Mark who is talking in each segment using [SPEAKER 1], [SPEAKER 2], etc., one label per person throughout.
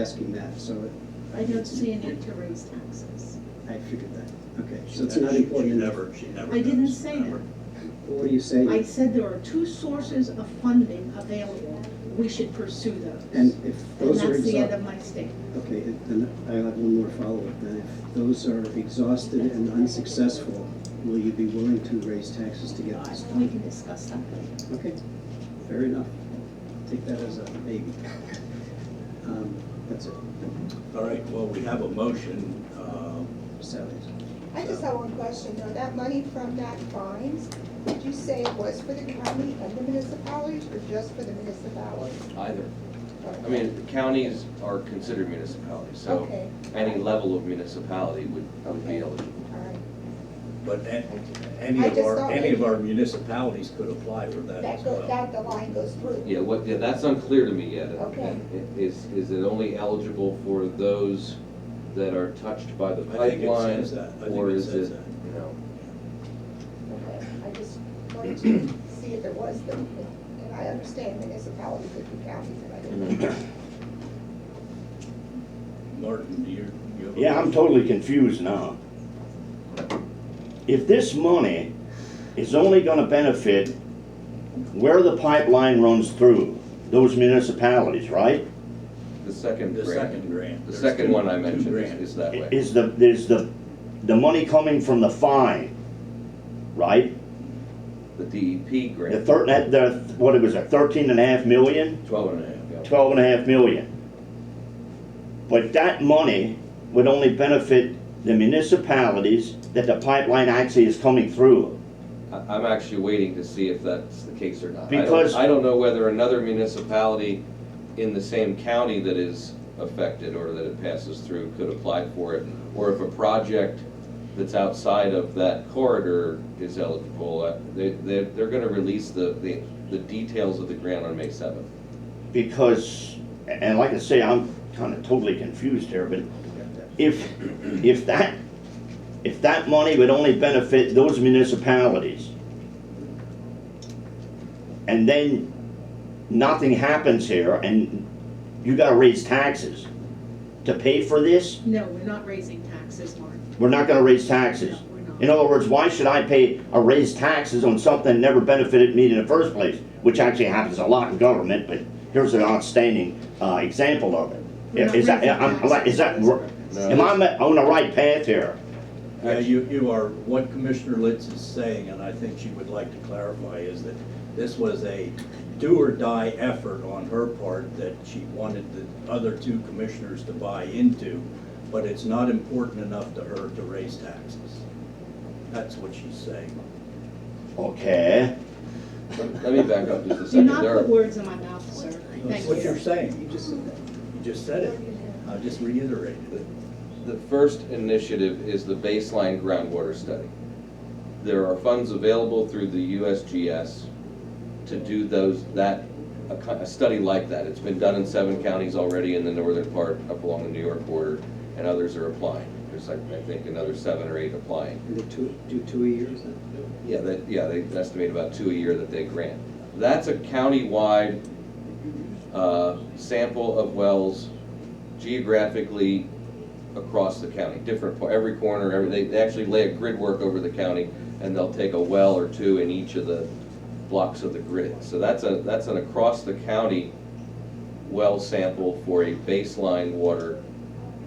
[SPEAKER 1] asking that, so
[SPEAKER 2] I don't see a need to raise taxes.
[SPEAKER 1] I figured that. Okay,
[SPEAKER 3] She
[SPEAKER 1] so it's
[SPEAKER 3] ne-
[SPEAKER 1] not
[SPEAKER 3] she- She
[SPEAKER 1] important.
[SPEAKER 3] never, she never.
[SPEAKER 2] I didn't
[SPEAKER 3] does,
[SPEAKER 2] say
[SPEAKER 3] never.
[SPEAKER 2] that.
[SPEAKER 1] What do you say?
[SPEAKER 2] I said there are two sources of funding available, we should pursue those.
[SPEAKER 1] And if
[SPEAKER 2] And
[SPEAKER 1] those are
[SPEAKER 2] that's the end of
[SPEAKER 1] exhausted,
[SPEAKER 2] my statement.
[SPEAKER 1] okay, then I have one more follow-up. Then if those are exhausted and unsuccessful, will you be willing to raise taxes to get this?
[SPEAKER 2] We can discuss that later.
[SPEAKER 1] Okay, fair enough. Take that as a maybe. Um, That's it,
[SPEAKER 3] All right, well, we have a motion, um,
[SPEAKER 1] salaries.
[SPEAKER 4] I just have one question, though, that money from that fines, did you say it was for the county and the municipalities, or just for the municipalities?
[SPEAKER 5] Either. I mean, counties are considered municipalities, so
[SPEAKER 4] Okay,
[SPEAKER 5] any level of municipality would, would be
[SPEAKER 4] Okay.
[SPEAKER 5] eligible.
[SPEAKER 4] all right,
[SPEAKER 3] but a- any
[SPEAKER 4] I
[SPEAKER 3] of
[SPEAKER 4] just
[SPEAKER 3] our,
[SPEAKER 4] thought
[SPEAKER 3] any
[SPEAKER 4] maybe-
[SPEAKER 3] of our municipalities could apply for that as
[SPEAKER 4] that goes,
[SPEAKER 3] well.
[SPEAKER 4] that, the line goes through.
[SPEAKER 5] Yeah, what, yeah, that's unclear to me yet.
[SPEAKER 4] Okay.
[SPEAKER 5] I- Is, is it only eligible for those that are touched by the
[SPEAKER 3] I think it
[SPEAKER 5] pipeline?
[SPEAKER 3] says that, I think
[SPEAKER 5] Or
[SPEAKER 3] it
[SPEAKER 5] is
[SPEAKER 3] says
[SPEAKER 5] it,
[SPEAKER 3] that.
[SPEAKER 5] you know,
[SPEAKER 4] Okay, I just wanted to see if there was the, and I understand municipality could be counties, and I
[SPEAKER 5] Mm-hmm.
[SPEAKER 4] didn't. know.
[SPEAKER 3] Martin, do you, you have? a-
[SPEAKER 6] Yeah, I'm totally confused now. If this money is only gonna benefit where the pipeline runs through, those municipalities, right?
[SPEAKER 5] the second
[SPEAKER 3] The second
[SPEAKER 5] grant.
[SPEAKER 3] grant.
[SPEAKER 5] The
[SPEAKER 3] There's
[SPEAKER 5] second
[SPEAKER 3] two-
[SPEAKER 5] one I
[SPEAKER 3] two
[SPEAKER 5] mentioned is-
[SPEAKER 3] grants.
[SPEAKER 5] is that way.
[SPEAKER 6] Is the, is the, the money coming from the fine, right?
[SPEAKER 5] The DEP
[SPEAKER 6] The
[SPEAKER 5] grant,
[SPEAKER 6] thir, that, the, what it was, a thirteen and a half million,
[SPEAKER 5] twelve and a half, yeah.
[SPEAKER 6] twelve and a half million? But that money would only benefit the municipalities that the pipeline actually is coming through.
[SPEAKER 5] I- I'm actually waiting to see if that's the case or not. I don't-
[SPEAKER 6] Because-
[SPEAKER 5] I don't know whether another municipality in the same county that is affected or that it passes through could apply for it, or if a project that's outside of that corridor is eligible. Uh, They, they're, they're gonna release the, the, the details of the grant on May seventh.
[SPEAKER 6] because, and like I say, I'm kind of totally confused here, but if, if that, if that money would only benefit those municipalities, and then nothing happens here, and you gotta raise taxes to pay for this,
[SPEAKER 2] No, we're not raising taxes, Mark.
[SPEAKER 6] we're not gonna raise
[SPEAKER 2] No,
[SPEAKER 6] taxes.
[SPEAKER 2] we're
[SPEAKER 6] In
[SPEAKER 2] not.
[SPEAKER 6] other words, why should I pay or raise taxes on something that never benefited me in the first place? Which actually happens a lot in government, but here's an outstanding uh, example of it.
[SPEAKER 2] We're not
[SPEAKER 6] Is that,
[SPEAKER 2] raising
[SPEAKER 6] I'm- I'm like, is that,
[SPEAKER 2] taxes.
[SPEAKER 6] r- am I ma- on the right path here?
[SPEAKER 3] Yeah, you, you are, what Commissioner Litz is saying, and I think she would like to clarify, is that this was a do or die effort on her part that she wanted the other two commissioners to buy into, but it's not important enough to her to raise taxes. That's what she's saying.
[SPEAKER 6] Okay,
[SPEAKER 5] Let let me back up just a
[SPEAKER 2] Do
[SPEAKER 5] second.
[SPEAKER 2] not
[SPEAKER 5] There are-
[SPEAKER 2] put words in my mouth, sir. Thank
[SPEAKER 3] That's what you're
[SPEAKER 2] you.
[SPEAKER 3] saying.
[SPEAKER 1] You just said that.
[SPEAKER 3] You just said it. I just reiterated it.
[SPEAKER 5] The first initiative is the baseline groundwater study. There are funds available through the USGS to do those, that, a, co- a study like that. It's been done in seven counties already in the northern part up along the New York border, and others are applying. There's like, I think, another seven or eight applying.
[SPEAKER 1] And the two, do two a year, is that?
[SPEAKER 5] Yeah, that, yeah, they estimate about two a year that they grant. That's a countywide, uh, sample of wells geographically across the county, different, po- every corner, every, they, they actually lay a grid work over the county, and they'll take a well or two in each of the blocks of the grid. So that's a, that's an across-the-county well sample for a baseline water,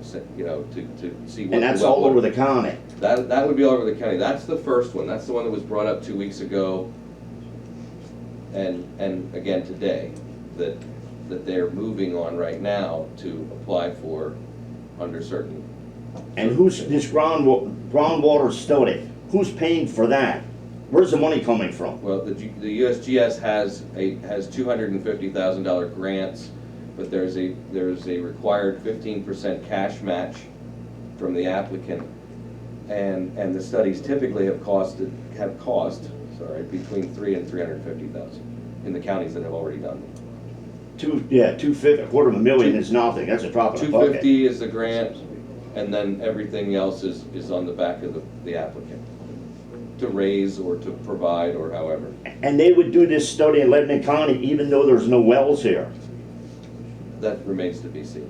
[SPEAKER 5] sa- you know, to, to see what.
[SPEAKER 6] and
[SPEAKER 5] the
[SPEAKER 6] that's
[SPEAKER 5] well
[SPEAKER 6] all
[SPEAKER 5] water-
[SPEAKER 6] over the county.
[SPEAKER 5] that, that would be all over the county. That's the first one. That's the one that was brought up two weeks ago. And, and again today, that, that they're moving on right now to apply for under certain.
[SPEAKER 6] And who's, this ground, wa- groundwater study, who's paying for that? Where's the money coming from?
[SPEAKER 5] Well, the, G- the USGS has a, has two hundred and fifty thousand dollar grants, but there's a, there's a required fifteen percent cash match from the applicant. And, and the studies typically have costed, have cost, sorry, between three and three hundred and fifty thousand in the counties that have already done them.
[SPEAKER 6] Two, yeah, two fifty, a quarter of a million is nothing, that's a drop in
[SPEAKER 5] Two
[SPEAKER 6] the bucket.
[SPEAKER 5] fifty is the grant, and then everything else is, is on the back of the, the applicant to raise or to provide or however.
[SPEAKER 6] And they would do this study in Lebanon County even though there's no wells here.
[SPEAKER 5] That remains to be seen.